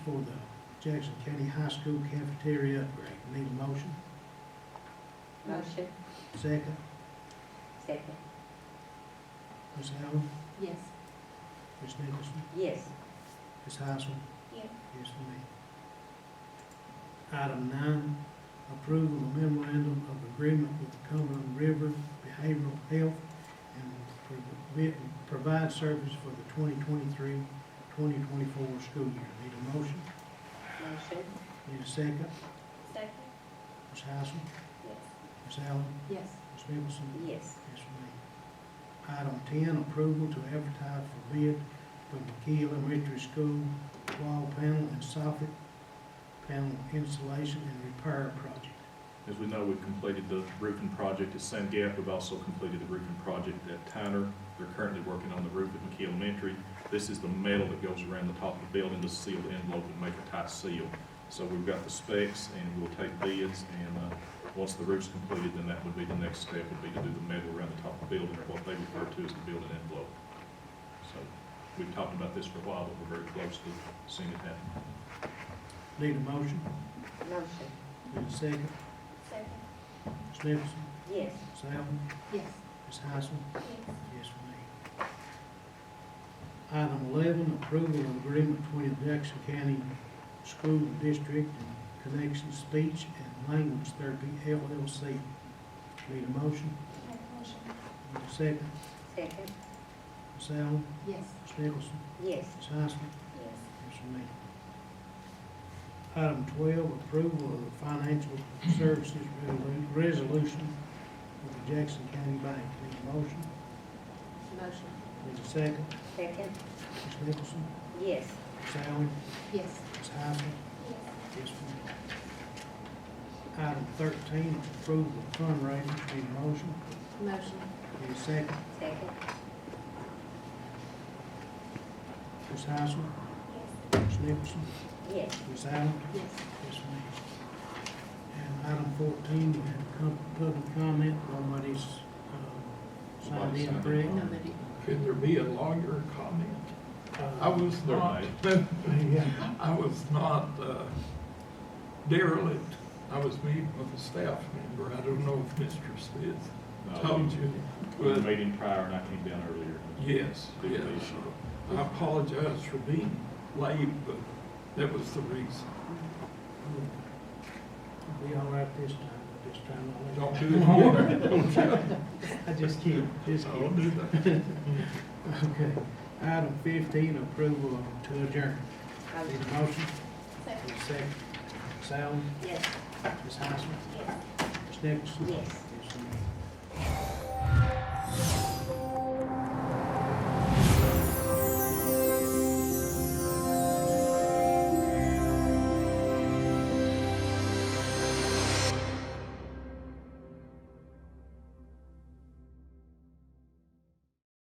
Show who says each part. Speaker 1: for the Jackson County High School cafeteria upgrade. Need a motion?
Speaker 2: Motion.
Speaker 1: Second,
Speaker 2: Second.
Speaker 1: Ms. Allen,
Speaker 2: Yes.
Speaker 1: Ms. Nicholson,
Speaker 2: Yes.
Speaker 1: Ms. Heisman.
Speaker 2: Yes.
Speaker 1: Yes, ma'am. Item nine, approval of memorandum of agreement with the Cumberland River Behavioral Health and provi- provide service for the 2023-2024 school year. Need a motion?
Speaker 2: Motion.
Speaker 1: Need a second?
Speaker 2: Second.
Speaker 1: Ms. Heisman,
Speaker 2: Yes.
Speaker 1: Ms. Allen,
Speaker 2: Yes.
Speaker 1: Ms. Nicholson,
Speaker 2: Yes.
Speaker 1: Yes, ma'am. Item ten, approval to advertise for bid for McKee Elementary School wall panel and soffit panel installation and repair project.
Speaker 3: As we know, we've completed the roofing project at Sand Gap. We've also completed the roofing project at Tyner. They're currently working on the roof at McKee Elementary. This is the metal that goes around the top of the building to seal the envelope and make a tight seal. So we've got the specs and we'll take bids and, uh, once the roof's completed, then that would be the next step, would be to do the metal around the top of the building or what they refer to as the building envelope. So we've talked about this for a while, but we're very close to seeing it happen.
Speaker 1: Need a motion?
Speaker 2: Motion.
Speaker 1: Need a second?
Speaker 2: Second.
Speaker 1: Ms. Nicholson,
Speaker 2: Yes.
Speaker 1: Ms. Allen,
Speaker 2: Yes.
Speaker 1: Ms. Heisman?
Speaker 2: Yes.
Speaker 1: Yes, ma'am. Item eleven, approval of agreement between the Jackson County School District and Connection Speech and Language Therapy LLC. Need a motion?
Speaker 2: Make a motion.
Speaker 1: Need a second?
Speaker 2: Second.
Speaker 1: Ms. Allen,
Speaker 2: Yes.
Speaker 1: Ms. Nicholson,
Speaker 2: Yes.
Speaker 1: Ms. Heisman,
Speaker 2: Yes.
Speaker 1: yes, ma'am. Item twelve, approval of the financial services resolu- resolution with the Jackson County Bank. Need a motion?
Speaker 2: Motion.
Speaker 1: Need a second?
Speaker 2: Second.
Speaker 1: Ms. Nicholson,
Speaker 2: Yes.
Speaker 1: Ms. Allen,
Speaker 2: Yes.
Speaker 1: Ms. Heisman, yes, ma'am. Item thirteen, approval of fundraisers. Need a motion?
Speaker 2: Motion.
Speaker 1: Need a second?
Speaker 2: Second.
Speaker 1: Ms. Heisman, Ms. Nicholson,
Speaker 2: Yes.
Speaker 1: Ms. Allen,
Speaker 2: Yes.
Speaker 1: Yes, ma'am. And item fourteen, we have com- public comment, nobody's, um, signed in, correct?
Speaker 3: Nobody.
Speaker 4: Could there be a lawyer comment? I
Speaker 1: Uh,
Speaker 4: was
Speaker 3: There
Speaker 4: not, I was not uh, derelict. I was meeting with a staff member. I don't know if Mr.
Speaker 3: No.
Speaker 4: Smith told you,
Speaker 3: Uh, We had a
Speaker 4: but
Speaker 3: meeting prior and I came down earlier.
Speaker 4: yes,
Speaker 3: Do the
Speaker 4: yes.
Speaker 3: issue.
Speaker 4: I apologize for being late, but that was the reason.
Speaker 1: We'll Be all right this time, but this time I'll
Speaker 4: Don't
Speaker 1: let
Speaker 4: do it more, don't you?
Speaker 1: I just kidding, just
Speaker 4: Don't
Speaker 1: kidding.
Speaker 4: do that.
Speaker 1: Okay. Item fifteen, approval of- to adjourn. Need
Speaker 2: Motion.
Speaker 1: a motion?
Speaker 2: Second.
Speaker 1: Need a second? Ms. Allen,
Speaker 2: Yes.
Speaker 1: Ms. Heisman,
Speaker 2: Yes.
Speaker 1: Ms. Nicholson,
Speaker 2: Yes.